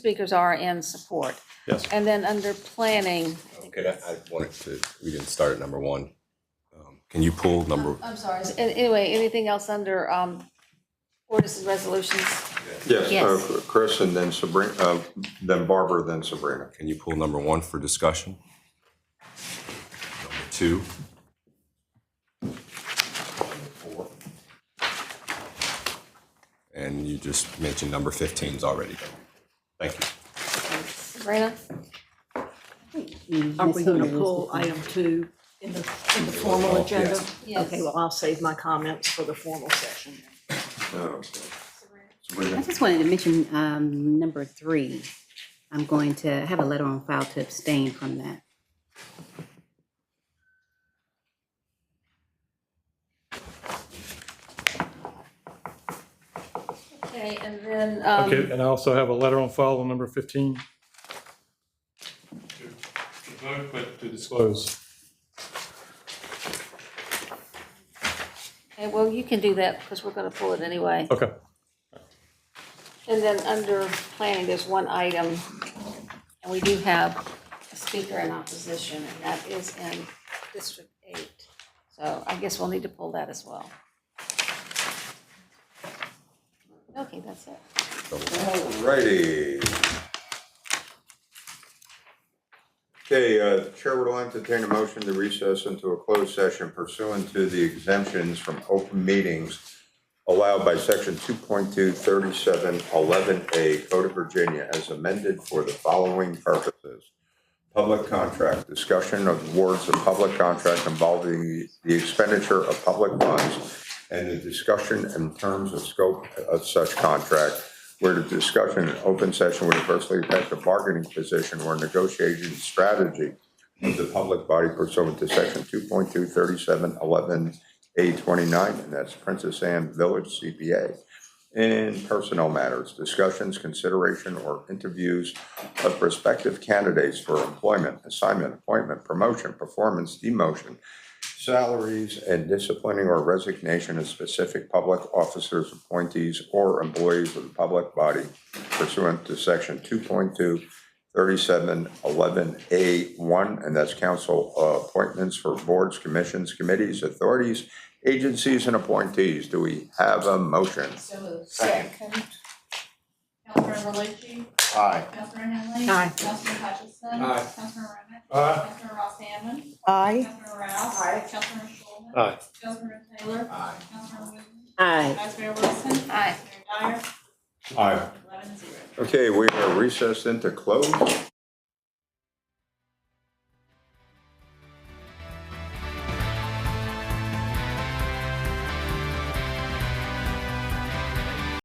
speakers are in support. Yes. And then under planning. Okay, I I wanted to, we didn't start at number one. Um, Can you pull number? I'm sorry. is- an- Anyway, anything else under um, ordinances, resolutions? Yes, Yes. uh, Chris and then Sabrina, uh, then Barbara, then Sabrina. Can you pull number one for discussion? Number two? Four. And you just mentioned number 15's already done. Thank you. Sabrina? Are we going to pull item two in the, in the formal agenda? Yes. Okay, well, I'll save my comments for the formal session. Uh, I Sabrina, just wanted to mention um, number three. I'm going to have a letter on file to abstain from that. Okay, and then, um, Okay, and I also have a letter on file on number 15. To vote, but to disclose. okay, well, you can do that because we're going to pull it anyway. Okay. And then under planning, there's one item, and we do have a speaker in opposition, and that is in District Eight. So I guess we'll need to pull that as well. Okay, that's it. Alrighty. Okay, uh, Chair will entertain a motion to recess into a closed session pursuant to the exemptions from open meetings allowed by section 2.23711A Code of Virginia as amended for the following purposes. Public contract, discussion of awards of public contract involving the expenditure of public funds and the discussion and terms of scope of such contract, where the discussion in open session would adversely affect the bargaining position or negotiation strategy of the public body pursuant to section 2.23711A29, and that's Princess Anne Village CPA. In personnel matters, discussions, consideration, or interviews of prospective candidates for employment, assignment, appointment, promotion, performance, demotion, salaries, and disciplining or resignation of specific public officers, appointees, or employees of the public body pursuant to section 2.2, 3711A1, and that's council uh, appointments for boards, commissions, committees, authorities, agencies, and appointees. Do we have a motion? So moved. Second. Councilor Berluci. Aye. Councilor Henley. Aye. Councilor Hutchinson. Aye. Councilor Remick. Aye. Councilor Ross Hammond. Aye. Councilor Rouse. Aye. Councilor Shulman. Aye. Councilor Taylor. Aye. Councilor Wooten. Aye. Vice Mayor Wilson. Aye. Mayor Dyer. Aye. Eleven zero. Okay, we are recessed into closed